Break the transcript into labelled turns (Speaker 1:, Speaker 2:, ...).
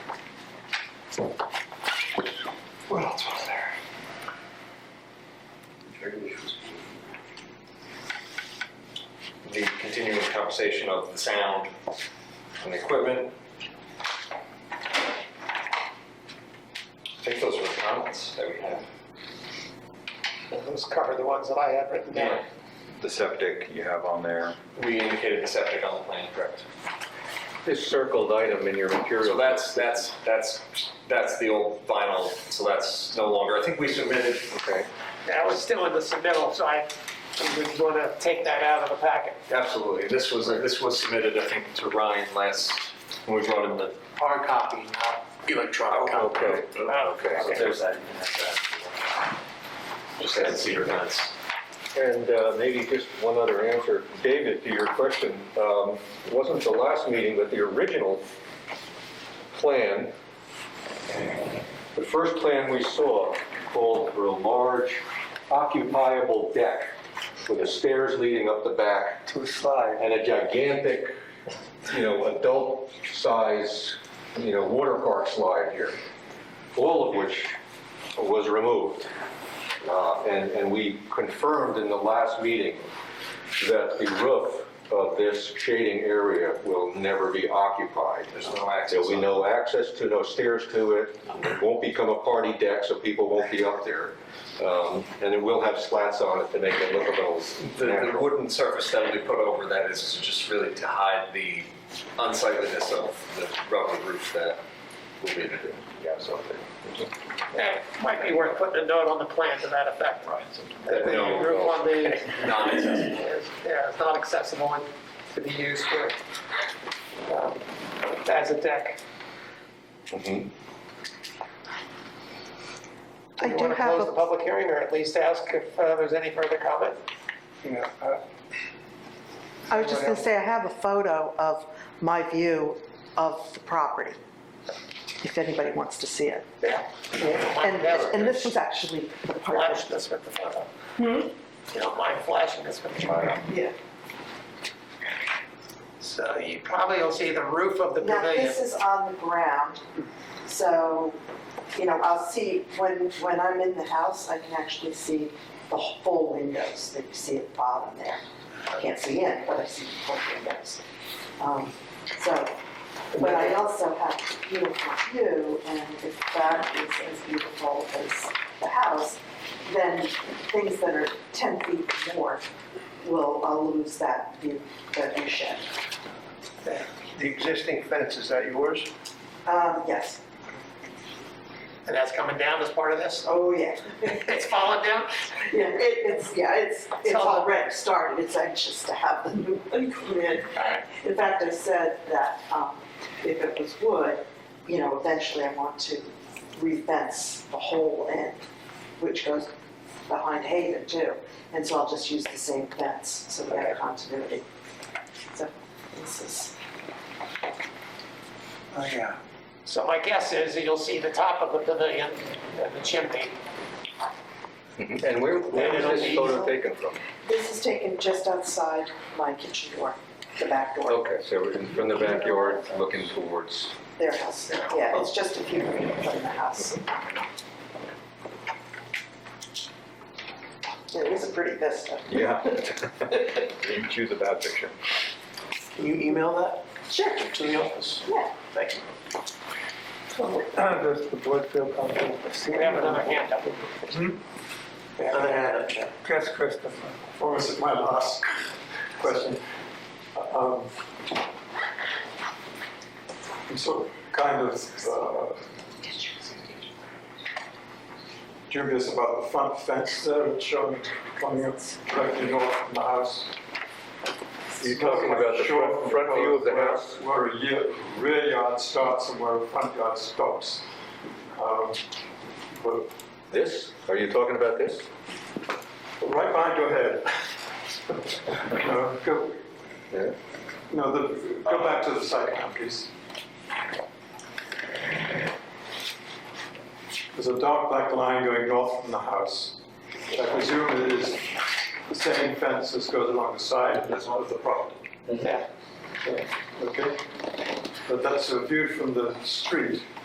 Speaker 1: What else was there? The continuing conversation of the sound and the equipment. I think those were the comments that we had.
Speaker 2: Those cover the ones that I had written down.
Speaker 3: The septic you have on there.
Speaker 1: We indicated the septic on the plan, correct?
Speaker 4: This circled item in your material.
Speaker 1: So that's, that's, that's, that's the old vinyl, so that's no longer, I think we submitted,
Speaker 4: Okay,
Speaker 2: That was still in the submittal, so I would want to take that out of the packet.
Speaker 1: absolutely, this was, this was submitted, I think, to Ryan last, when we brought in the.
Speaker 2: Hard copy, not electronic
Speaker 4: okay,
Speaker 2: Oh,
Speaker 4: okay.
Speaker 1: There's that, you can have that. Just had cedar vents.
Speaker 4: And uh, maybe just one other answer, David, to your question. um, it Wasn't the last meeting, but the original plan, the first plan we saw called for a large occupiable deck with the stairs leading up the back
Speaker 2: To slide.
Speaker 4: and a gigantic, you know, adult size, you know, water park slide here, all of which was removed. Uh, And, and we confirmed in the last meeting that the roof of this shading area will never be occupied.
Speaker 1: There's no access
Speaker 4: There'll be
Speaker 1: on it.
Speaker 4: no access to, no stairs to it, it won't become a party deck, so people won't be up there. Um, And it will have slats on it to make it look a little
Speaker 1: The, the
Speaker 4: natural.
Speaker 1: wooden surface that we put over that is just really to hide the unsightliness of the rubber roof that will be there.
Speaker 4: Yeah, something.
Speaker 2: That might be worth putting a note on the plan to that effect. That the
Speaker 1: No,
Speaker 2: roof
Speaker 1: no.
Speaker 2: on the,
Speaker 1: Non-accessible.
Speaker 2: yeah, it's not accessible and to be used for, um, as a deck.
Speaker 4: Mhm.
Speaker 5: I do
Speaker 2: You want to
Speaker 5: have
Speaker 2: close the
Speaker 5: a,
Speaker 2: public hearing or at least ask if uh, there's any further comment?
Speaker 6: Yeah, uh,
Speaker 5: I was just gonna say, I have a photo of my view of the property, if anybody wants to see it.
Speaker 2: Yeah.
Speaker 5: And, and this Hmm? was actually the part.
Speaker 2: Flash this with the photo. You don't mind flashing this with the photo?
Speaker 5: Yeah.
Speaker 2: So you probably will see the roof of the
Speaker 7: Now,
Speaker 2: pavilion.
Speaker 7: this is on the ground, so, you know, I'll see, when, when I'm in the house, I can actually see the full windows that you see at the bottom there. I Can't see in, but I see the full windows. Um, So, but I also have a beautiful view, and if that is as beautiful as the house, then things that are 10 feet more will, I'll lose that view, that view shed.
Speaker 6: the existing fence, is that yours?
Speaker 7: Um, Yes,
Speaker 2: And that's coming down as part of this?
Speaker 7: oh, yeah.
Speaker 2: It's falling down?
Speaker 7: Yeah, it, it's, yeah, it's, it's
Speaker 2: all-
Speaker 7: already started, it's anxious to have the new one come in. In fact, I said that, um, if it was wood, you know, eventually I want to re-fence the whole end, which goes behind Haven too, and so I'll just use the same fence, so we have continuity. So, this is,
Speaker 6: Oh, yeah.
Speaker 2: So my guess is that you'll see the top of the pavilion and the chimney.
Speaker 4: And where, where was this photo taken from?
Speaker 7: this is taken just outside my kitchen door, the back door.
Speaker 4: Okay, so we're in- from the backyard, looking towards,
Speaker 7: Their house, yeah, it's just a few feet from the house. It is a pretty vista.
Speaker 4: yeah. You choose a bad picture.
Speaker 2: Can you email that
Speaker 7: Sure,
Speaker 2: to the office?
Speaker 7: yeah.
Speaker 2: Thank you.
Speaker 6: Does the board feel comfortable
Speaker 2: Do
Speaker 6: seeing
Speaker 2: we have another hand up? Another hand up, Jeff.
Speaker 6: Yes, Christopher.
Speaker 8: Well, this is my last question. Um, I'm so kind of uh, dubious about the front fence there, it's showing coming up directly north from the house.
Speaker 4: You're talking about the front, front view of the house?
Speaker 8: Where a year- rear yard starts and where a front yard stops. Um, But
Speaker 4: This? Are you talking about this?
Speaker 8: right behind your head. Uh, Go,
Speaker 4: Yeah.
Speaker 8: No, the, go back to the site plan, please. There's a dark black line going north from the house. I presume it is the same fence that goes along the side of this one of the property.
Speaker 2: Yeah.
Speaker 8: Okay? But that's uh, viewed from the street.